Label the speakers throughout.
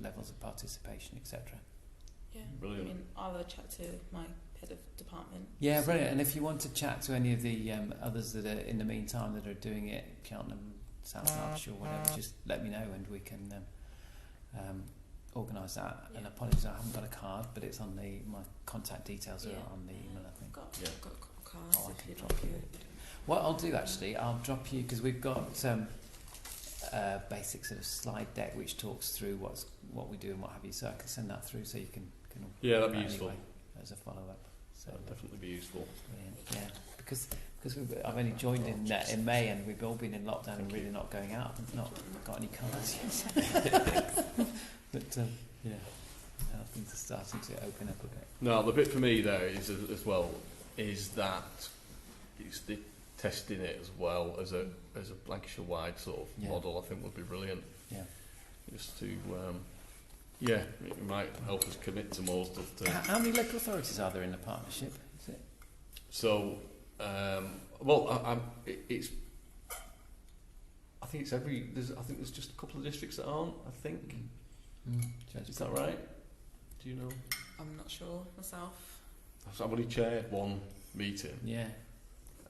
Speaker 1: levels uh, of participation, etc.
Speaker 2: Yeah.
Speaker 3: Brilliant.
Speaker 2: I mean, I'll have a chat to my head of department.
Speaker 1: Mm. Yeah,
Speaker 2: See-
Speaker 1: brilliant. And if you want to chat to any of the um, others that are in the meantime that are doing it, Cheltenham, South
Speaker 2: Uh,
Speaker 1: Derbyshire, whatever, just let me know and we can um, um, organise that. And
Speaker 2: Yeah.
Speaker 1: apologies, I haven't got a card, but it's on the my contact details are
Speaker 2: Yeah.
Speaker 1: on the email, I
Speaker 2: I've
Speaker 1: think.
Speaker 2: got,
Speaker 3: Yeah.
Speaker 2: I've got a card.
Speaker 1: Oh, I
Speaker 2: if
Speaker 1: can
Speaker 2: you'd
Speaker 1: drop
Speaker 2: like
Speaker 1: you.
Speaker 2: it.
Speaker 1: What I'll do actually, I'll drop you because we've got um, a basic sort of slide deck which talks through what's what we do and what have you. So I can send that through so you can can all
Speaker 3: Yeah, that'd
Speaker 1: look
Speaker 3: be
Speaker 1: at it
Speaker 3: useful.
Speaker 1: anyway as a follow up. So
Speaker 3: That'd definitely be useful.
Speaker 1: brilliant. yeah, because because we've, I've only joined in uh, in May and we've all been in lockdown and
Speaker 3: Thank you.
Speaker 1: really not going out, and not got any colours yet. but um, yeah, now things are starting to open up a bit.
Speaker 3: No, the bit for me though is as as well is that it's the testing it as well as a as a Lancashire wide sort of
Speaker 1: Yeah.
Speaker 3: model. I think would be brilliant.
Speaker 1: Yeah.
Speaker 3: Just to um, yeah, it might help us commit to more stuff too.
Speaker 1: How, how many local authorities are there in the partnership? Is it?
Speaker 3: So, um, well, I, I'm, it, it's. I think it's every. There's, I think there's just a couple of districts that aren't. I think
Speaker 1: Mm. Should I
Speaker 3: is
Speaker 1: just-
Speaker 3: that right? Do you know?
Speaker 2: I'm not sure myself.
Speaker 3: So I've only chaired one meeting,
Speaker 1: Yeah.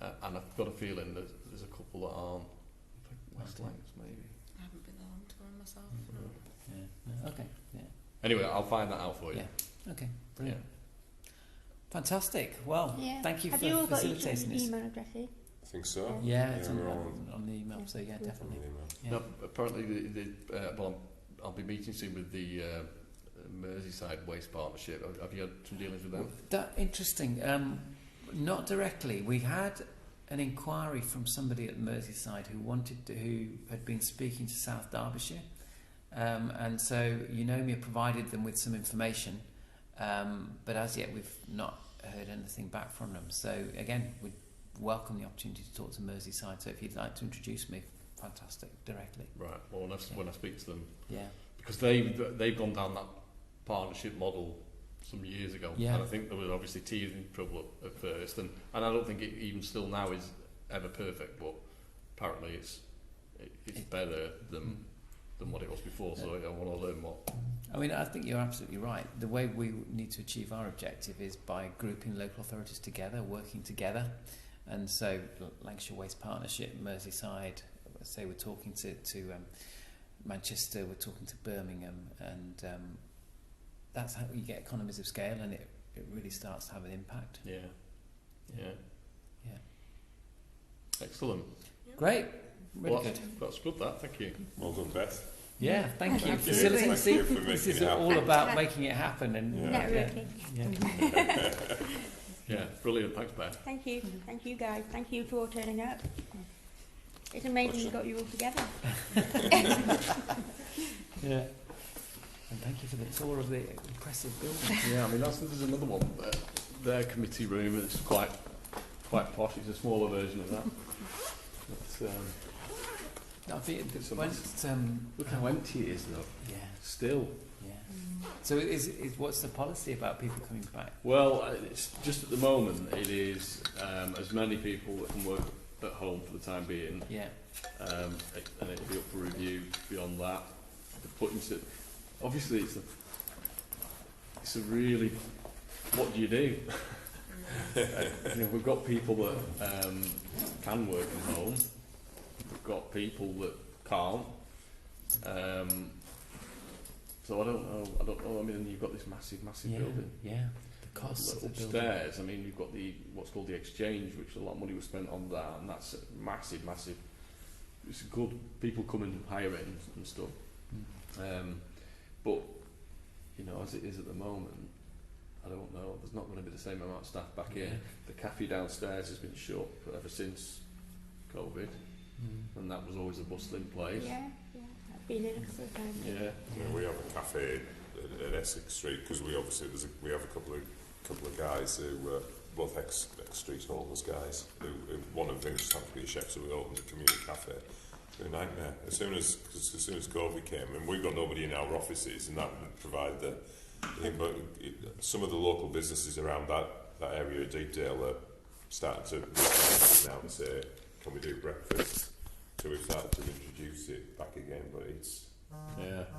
Speaker 3: uh, and I've got a feeling that there's a couple that aren't. I think West
Speaker 1: Okay.
Speaker 3: Lancs maybe.
Speaker 2: I haven't been there long to run myself.
Speaker 1: Mm-hmm.
Speaker 3: Mm.
Speaker 2: no.
Speaker 1: Yeah. No, Okay. Yeah.
Speaker 3: Anyway, I'll find that out for you.
Speaker 1: Yeah. Okay. Brilliant. Fantastic. Well,
Speaker 4: Yeah.
Speaker 1: thank you
Speaker 4: Have
Speaker 1: for
Speaker 4: you all got e-, each
Speaker 1: facilitating
Speaker 4: other's
Speaker 1: this.
Speaker 4: email addresses?
Speaker 5: I think so.
Speaker 1: Yeah,
Speaker 5: Yeah,
Speaker 4: e-,
Speaker 1: it's on,
Speaker 5: we're all
Speaker 1: on, on the email. So yeah,
Speaker 4: Yeah.
Speaker 1: definitely.
Speaker 5: Really, man.
Speaker 1: Yeah.
Speaker 3: No, apparently, the, the, uh, well, I'm, I'll be meeting soon with the uh, Merseyside Waste Partnership. Have- Have you had some dealings with them?
Speaker 1: That interesting. Um, not directly. We had an inquiry from somebody at Merseyside who wanted to, who had been speaking to South Derbyshire, um, and so Eunomia provided them with some information, um, but as yet we've not heard anything back from them. So again, we welcome the opportunity to talk to Merseyside. So if you'd like to introduce me, fantastic, directly.
Speaker 3: Right. Well, when I, s- when I speak to them,
Speaker 1: Yeah.
Speaker 3: because they've they've gone down that partnership model some years ago,
Speaker 1: Yeah.
Speaker 3: and I think there was obviously teething trouble at, at first, and, and I don't think it even still now is ever perfect, but apparently it's it, it's
Speaker 1: It-
Speaker 3: better than than what it was before. So I want to learn more.
Speaker 1: I mean, I think you're absolutely right. The way we need to achieve our objective is by grouping local authorities together, working together. And so, L- Lancashire Waste Partnership, Merseyside, say we're talking to, to um, Manchester, we're talking to Birmingham, and um, that's how you get economies of scale and it, it really starts to have an impact.
Speaker 3: Yeah, yeah,
Speaker 1: Yeah.
Speaker 3: Excellent.
Speaker 1: Great. Really
Speaker 3: well,
Speaker 1: good.
Speaker 3: that's, that's good. That. Thank you.
Speaker 5: Well done, Beth.
Speaker 1: Yeah, thank you.
Speaker 5: Thank you.
Speaker 1: Facilitating.
Speaker 5: Thank you for making
Speaker 1: this is
Speaker 5: it happen.
Speaker 1: all about making it happen and
Speaker 5: Yeah.
Speaker 4: Networking.
Speaker 1: yeah.
Speaker 3: Yeah, brilliant. Thanks, Beth.
Speaker 4: Thank you.
Speaker 1: Mm-hmm.
Speaker 4: Thank you guys. Thank you for all turning up.
Speaker 1: Mm-hmm.
Speaker 4: It's amazing we
Speaker 5: Pleasure.
Speaker 4: got you all together.
Speaker 1: Yeah. And thank you for the tour of the impressive building.
Speaker 3: Yeah, I mean that's there's another one. Uh, their committee room. It's quite quite posh. It's a smaller version of that. But,
Speaker 1: I
Speaker 3: um,
Speaker 1: think it's
Speaker 3: It's a
Speaker 1: when, um,
Speaker 3: Look how empty it is though.
Speaker 1: yeah,
Speaker 3: Still.
Speaker 1: yeah.
Speaker 2: Mm.
Speaker 1: So is, is what's the policy about people coming back?
Speaker 3: Well, uh, it's just at the moment it is um, as many people that can work at home for the time being,
Speaker 1: Yeah,
Speaker 3: um, it- and it'll be up for review beyond that. The putting to, obviously it's a, it's a really what do you do? you know, we've got people that um, can work from home. We've got people that can't. Um, so I don't know. I don't know. I mean, you've got this massive, massive
Speaker 1: yeah,
Speaker 3: building.
Speaker 1: yeah. The costs of the building.
Speaker 3: upstairs. I mean, you've got the what's called the exchange, which a lot of money was spent on that, and that's a massive, massive. It's good. People come and hire it and, and stuff.
Speaker 1: Mm.
Speaker 3: Um, but you know, as it is at the moment, I don't know. There's not going to be the same amount of staff back in. The cafe downstairs has been shut ever since COVID,
Speaker 1: Mm.
Speaker 3: and that was always a bustling place.
Speaker 4: Yeah, yeah. I've been in a couple of times.
Speaker 3: Yeah.
Speaker 5: Yeah, we have a cafe at, at Essex Street because we obviously there's a, we have a couple of couple of guys who uh, both ex, ex street homeless guys. Who, who, one of them just happened to be a chef, so we opened a community cafe. It was A nightmare. As soon as 'cause as soon as COVID came, and we've got nobody in our offices, and that would provide the. the- But it, some of the local businesses around that that area, of Deepdale, are starting to reach out now and say, "Can we do breakfast?" So we've started to introduce it back again, but it's
Speaker 3: Yeah.